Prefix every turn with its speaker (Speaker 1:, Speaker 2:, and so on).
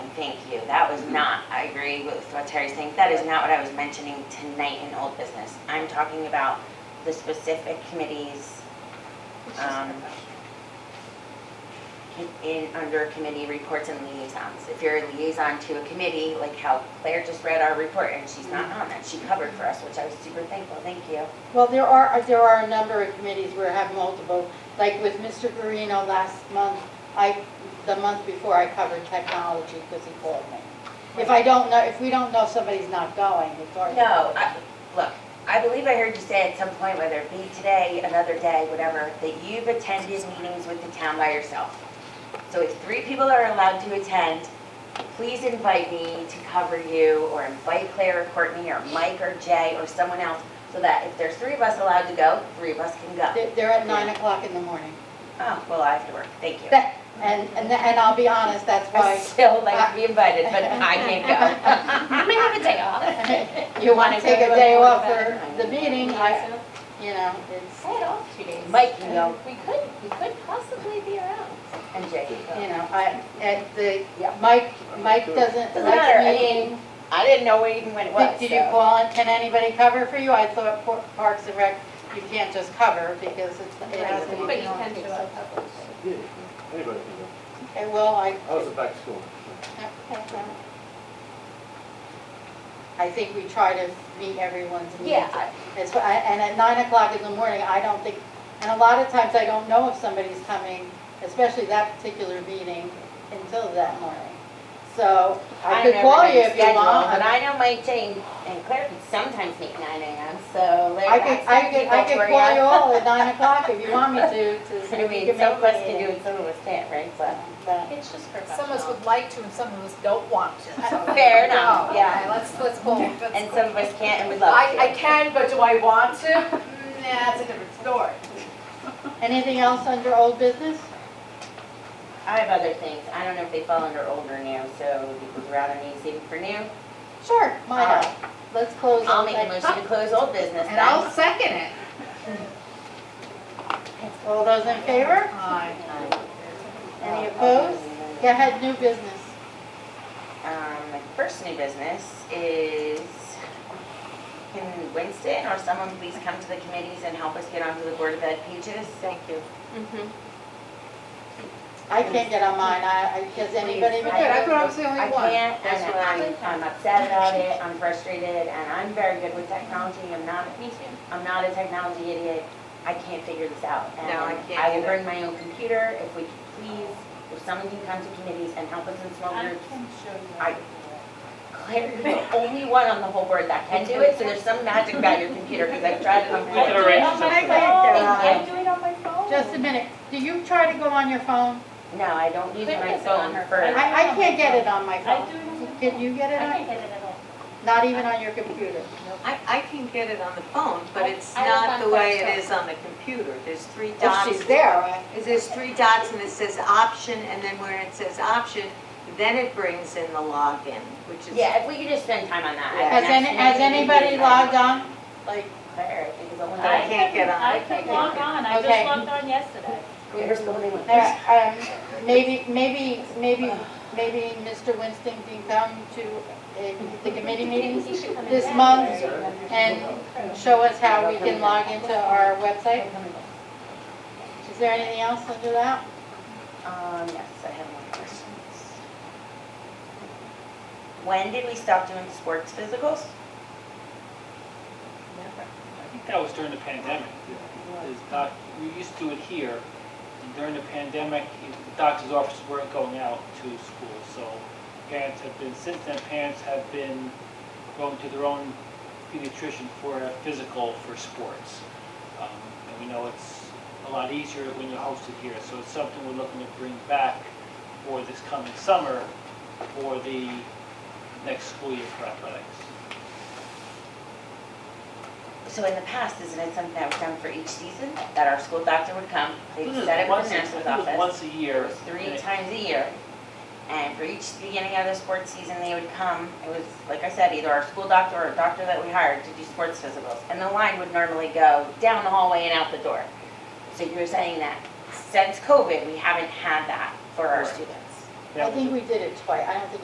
Speaker 1: Thank you. That was not, I agree with what Terry's saying. That is not what I was mentioning tonight in old business. I'm talking about the specific committees, um, in, under committee reports and liaisons. If you're a liaison to a committee, like how Claire just read our report and she's not on that, she covered for us, which I was super thankful. Thank you.
Speaker 2: Well, there are, there are a number of committees where I have multiple, like with Mr. Guarino last month, I, the month before, I covered technology because he called me. If I don't know, if we don't know somebody's not going, it's our.
Speaker 1: No, I, look, I believe I heard you say at some point, whether it be today, another day, whatever, that you've attended meetings with the town by yourself. So if three people are allowed to attend, please invite me to cover you, or invite Claire or Courtney, or Mike or Jay, or someone else, so that if there's three of us allowed to go, three of us can go.
Speaker 2: They're, they're at nine o'clock in the morning.
Speaker 1: Oh, well, I have to work, thank you.
Speaker 2: That, and, and, and I'll be honest, that's
Speaker 1: I
Speaker 2: why.
Speaker 1: still like to be invited, but I can't go.
Speaker 3: I'm gonna have a day off.
Speaker 2: You want to take a day off for
Speaker 1: better.
Speaker 2: the meeting, I,
Speaker 3: Yeah,
Speaker 2: you know,
Speaker 3: so
Speaker 2: it's,
Speaker 3: Say it off two days.
Speaker 1: Mike can go.
Speaker 3: We could, we could possibly be around.
Speaker 1: And Jay can go.
Speaker 2: you know, I, and the,
Speaker 1: Yeah.
Speaker 2: Mike, Mike doesn't
Speaker 1: Doesn't matter, I
Speaker 2: like
Speaker 1: mean,
Speaker 2: meeting.
Speaker 1: I didn't know even when it was,
Speaker 2: Did- Did you
Speaker 1: so.
Speaker 2: call and can anybody cover for you? I thought Por- Parks and Rec, you can't just cover because it's, it has to be.
Speaker 3: But you can show up.
Speaker 4: Yeah, anybody can go.
Speaker 2: Okay, well, I,
Speaker 4: I was back to school.
Speaker 2: I think we try to meet everyone's needs.
Speaker 3: Yeah, I-
Speaker 2: It's, I- and at nine o'clock in the morning, I don't think, and a lot of times I don't know if somebody's coming, especially that particular meeting, until that morning. So I could
Speaker 1: know
Speaker 2: call you
Speaker 1: everybody's
Speaker 2: if you
Speaker 1: schedule,
Speaker 2: want.
Speaker 1: But I know my Jane and Claire could sometimes meet nine AM, so
Speaker 2: I
Speaker 1: Larry,
Speaker 2: could,
Speaker 1: that's
Speaker 2: I could,
Speaker 1: people
Speaker 2: I could
Speaker 1: for
Speaker 2: call you
Speaker 1: you.
Speaker 2: all at nine o'clock if you want me to, to see
Speaker 1: I
Speaker 2: if you
Speaker 1: mean,
Speaker 2: can
Speaker 1: some of us
Speaker 2: make
Speaker 1: can do
Speaker 2: it.
Speaker 1: it, some of us can't, right, but.
Speaker 2: But
Speaker 3: It's just
Speaker 5: Some of us
Speaker 3: professional.
Speaker 5: would like to and some of us don't want to.
Speaker 1: Fair enough,
Speaker 5: No,
Speaker 1: yeah.
Speaker 5: okay, Let's, let's pull. let's-
Speaker 1: And some of us can't and would love
Speaker 5: I, I
Speaker 1: to.
Speaker 5: can, but do I want to? Mm, Nah, that's a different story.
Speaker 2: Anything else under old business?
Speaker 1: I have other things, I don't know if they fall under old or new, so would you rather me save it for new?
Speaker 2: Sure,
Speaker 1: All
Speaker 2: mine,
Speaker 1: right.
Speaker 2: let's close.
Speaker 1: I'll
Speaker 2: on
Speaker 1: make a
Speaker 2: that.
Speaker 1: motion to close old business
Speaker 5: And I'll
Speaker 1: then.
Speaker 5: second it.
Speaker 2: All those in favor?
Speaker 5: Aye.
Speaker 2: Any opposed? Go ahead, new business.
Speaker 1: Um, my first new business is, can Winston or someone please come to the committees and help us get onto the Board of Ed pages? Thank you.
Speaker 2: I can't get on mine, I, I, does anybody?
Speaker 5: Good, I thought I was the
Speaker 1: I
Speaker 5: only one.
Speaker 1: can't,
Speaker 3: That's
Speaker 1: and
Speaker 3: what I-
Speaker 1: I'm, I'm upset about it, I'm frustrated, and I'm very good with technology, I'm not,
Speaker 3: Me too.
Speaker 1: I'm not a technology idiot. I can't figure this out.
Speaker 5: No, I
Speaker 1: And
Speaker 5: can't
Speaker 1: I will
Speaker 5: either.
Speaker 1: bring my own computer, if we could please, if someone can come to committees and help us in small groups. I- Claire, you're the only one on the whole board that can do it, so there's some magic about your computer, because I've tried it.
Speaker 4: We can arrange
Speaker 3: Oh, my
Speaker 4: something.
Speaker 3: God.
Speaker 1: Thank
Speaker 3: I do it on my phone.
Speaker 2: Just a minute, do you try to go on your phone?
Speaker 1: No, I don't use
Speaker 3: Claire
Speaker 1: my
Speaker 3: gets it on
Speaker 1: phone
Speaker 3: her
Speaker 1: for,
Speaker 3: phone.
Speaker 2: I, I can't get it on my
Speaker 3: I do
Speaker 2: phone.
Speaker 3: it on my phone.
Speaker 2: Can you get
Speaker 3: I
Speaker 2: it
Speaker 3: can't
Speaker 2: on?
Speaker 3: get it at all.
Speaker 2: Not even on your computer?
Speaker 6: I, I can get it on the phone, but it's
Speaker 3: I- I was on
Speaker 6: not the way
Speaker 3: Claire's
Speaker 6: it is on the computer. There's three
Speaker 3: Oh,
Speaker 2: If
Speaker 6: dots.
Speaker 2: she's there, right?
Speaker 6: There's three dots and it says option, and then where it says option, then it brings in the login, which is.
Speaker 1: yeah, if we could just spend time on that. I
Speaker 2: Has
Speaker 1: mean,
Speaker 2: any,
Speaker 1: that's
Speaker 2: has
Speaker 1: really
Speaker 2: anybody
Speaker 1: easy.
Speaker 2: logged on? Like,
Speaker 1: Claire, I think is the only.
Speaker 6: I can't get on.
Speaker 3: I can log on, I
Speaker 2: Okay.
Speaker 3: just logged on yesterday.
Speaker 1: Here's the only one.
Speaker 2: There, um, maybe, maybe, maybe, maybe Mr. Winston can come to uh, the committee meetings
Speaker 3: He should come in
Speaker 2: this
Speaker 3: January.
Speaker 2: month and show us how we can log into our website. Is there anything else under that?
Speaker 1: Um, yes, I have more questions. When did we stop doing sports physicals?
Speaker 7: I think that was during the pandemic. Is doc- we used to do it here, and during the pandemic, the doctor's offices weren't going out to school, so parents have been, since then, parents have been going to their own pediatrician for a physical for sports. Um, And we know it's a lot easier when you host it here, so it's something we're looking to bring back for this coming summer for the next school year for athletics.
Speaker 1: So in the past, isn't it something that was done for each season, that our school doctor would come, they'd set up in the
Speaker 7: Once a-
Speaker 1: nurse's
Speaker 7: I think it was
Speaker 1: office,
Speaker 7: Once a year. and
Speaker 1: three
Speaker 7: it-
Speaker 1: times a year? And for each beginning of the sports season, they would come, it was, like I said, either our school doctor or a doctor that we hired to do sports physicals. And the line would normally go down the hallway and out the door. So you were saying that since COVID, we haven't had that for our
Speaker 7: Right.
Speaker 1: students.
Speaker 7: that
Speaker 2: I
Speaker 7: was
Speaker 2: think
Speaker 7: a-
Speaker 2: we did it twice. I don't think